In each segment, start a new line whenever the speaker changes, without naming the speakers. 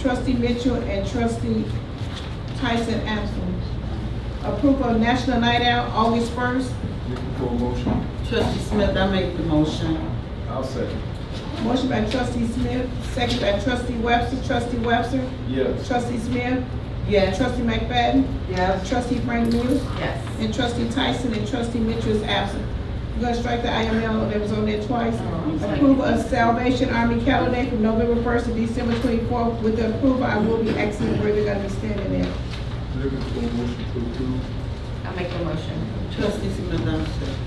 trustee Mitchell and trustee Tyson absent. Approval of National Night Out, August first.
Looking for a motion?
Trustee Smith, I make the motion.
I'll second.
Motion by trustee Smith, second by trustee Webster, trustee Webster,
Yes.
trustee Smith,
Yes.
trustee McFadden,
Yes.
trustee Frank Muse,
Yes.
and trustee Tyson and trustee Mitchell is absent. You gonna strike the IML that was on there twice?
Oh, I'm sorry.
Approval of Salvation Army calendar day from November first to December twenty-fourth. With the approval, I will be asking where they're gonna be standing at.
Looking for a motion to approve?
I make the motion.
Trustee Smith, I'm second.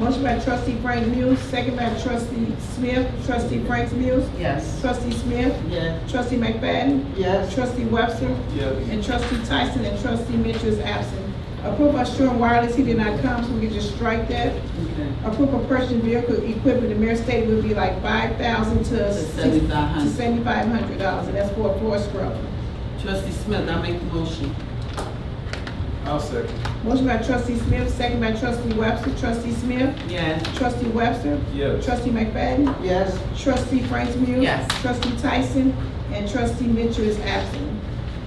Motion by trustee Frank Muse, second by trustee Smith, trustee Frank Muse,
Yes.
trustee Smith,
Yes.
trustee McFadden,
Yes.
trustee Webster,
Yes.
and trustee Tyson and trustee Mitchell is absent. Approve of Sherwin Wireless, he did not come, so we can just strike that.
Okay.
Approve of purchasing vehicle equipment, the mayor stated would be like five thousand to
To $7,500.
seventy-five hundred dollars, and that's for a floor scrub.
Trustee Smith, I make the motion.
I'll second.
Motion by trustee Smith, second by trustee Webster, trustee Smith,
Yes.
trustee Webster,
Yes.
trustee McFadden,
Yes.
Trustee Frank Muse.
Yes.
Trustee Tyson and trustee Mitchell is absent.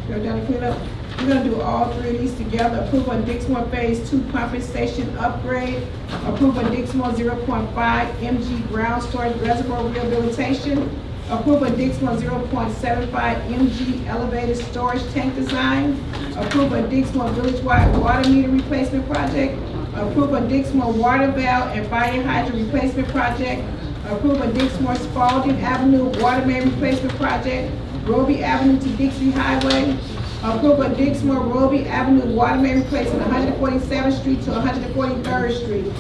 You're gonna clean up, we're gonna do all three of these together. Approval on Dixmoor Phase Two Pumping Station Upgrade. Approval on Dixmoor zero point five MG Ground Storage Reservoir Rehabilitation. Approval on Dixmoor zero point seven five MG Elevated Storage Tank Design. Approval of Dixmoor Village-wide Water Meter Replacement Project. Approval of Dixmoor Water Valve and Fire Hydrant Replacement Project. Approval of Dixmoor Spalding Avenue Water Main Replacement Project. Roby Avenue to Dixie Highway. Approval of Dixmoor Roby Avenue Water Main Replacement, 147th Street to 143rd Street.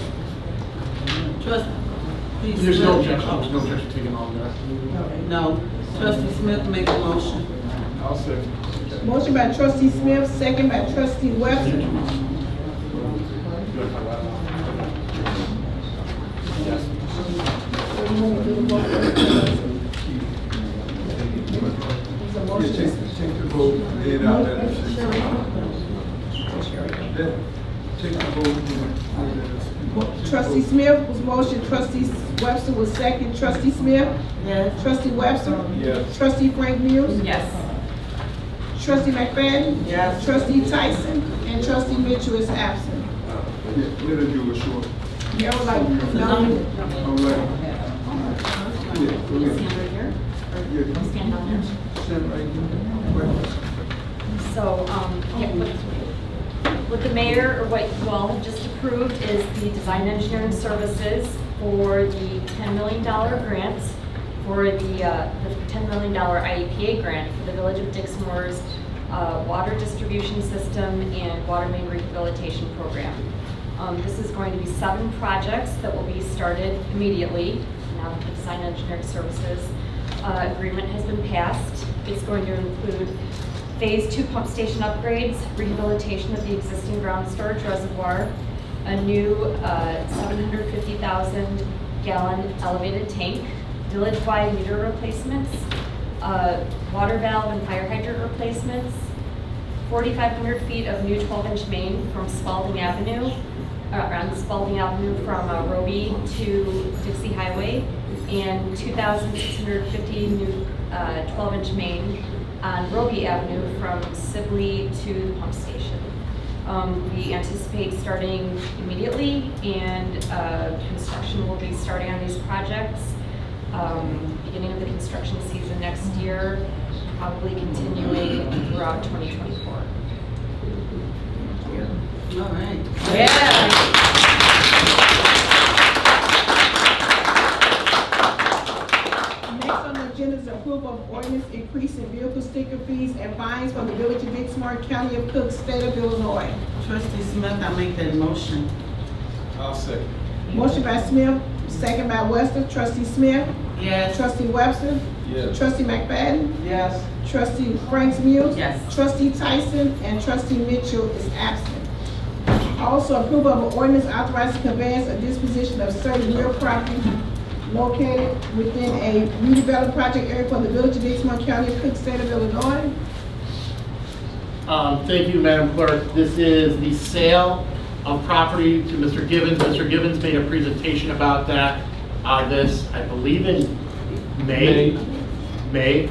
Trustee Smith.
There's no objection, there's no objection taken on that.
No. Trustee Smith, make the motion.
I'll second.
Motion by trustee Smith, second by trustee Webster. It's a
Yeah,
motion.
take, take the vote, lay it out there. That- Take the vote. and lay it out there.
Trustee Smith was motion, trustee Webster was second, trustee Smith,
Yes.
trustee Webster,
Yes.
trustee Frank Muse,
Yes.
trustee McFadden,
Yes.
trustee Tyson, and trustee Mitchell is absent.
Yeah, Let her do a short.
Mayor would like, Uh, no,
All right. Yeah, go ahead. Yeah. Stand right there.
So, um, yeah, what, what the mayor, or what you all have just approved is the design engineering services for the ten million dollar grant for the, uh, the ten million dollar IEPA grant for the Village of Dixmoor's, uh, water distribution system and water main rehabilitation program. Um, this is going to be seven projects that will be started immediately, now that the design engineering services, uh, agreement has been passed. It's going to include Phase two pump station upgrades, rehabilitation of the existing ground storage reservoir, a new uh, 750,000 gallon elevated tank, village-wide meter replacements, uh, water valve and fire hydrant replacements, 4,500 feet of new 12-inch main from Spalding Avenue, uh, around Spalding Avenue from uh, Roby to Dixie Highway, and 2,650 new uh, 12-inch main on Roby Avenue from Sibley to the pump station. Um, We anticipate starting immediately, and uh, construction will be starting on these projects um, beginning of the construction season next year, probably continuing throughout 2024.
All right.
Yes.
next on the agenda is approval of ordinance increasing vehicle sticker fees and fines for the village of Dixmoor, county of Cook, state of Illinois.
Trustee Smith, I make that motion.
I'll second.
Motion by Smith, second by Webster, trustee Smith,
Yes.
trustee Webster,
Yes.
trustee McFadden,
Yes.
Trustee Frank Muse.
Yes.
Trustee Tyson and trustee Mitchell is absent. Also, approval of an ordinance authorizing conveyance of disposition of certain real property located within a redeveloped project area for the village of Dixmoor County, Cook State of Illinois.
Um, Thank you, Madam Clerk. This is the sale of property to Mr. Givens. Mr. Givens made a presentation about that, uh, this, I believe in May. May.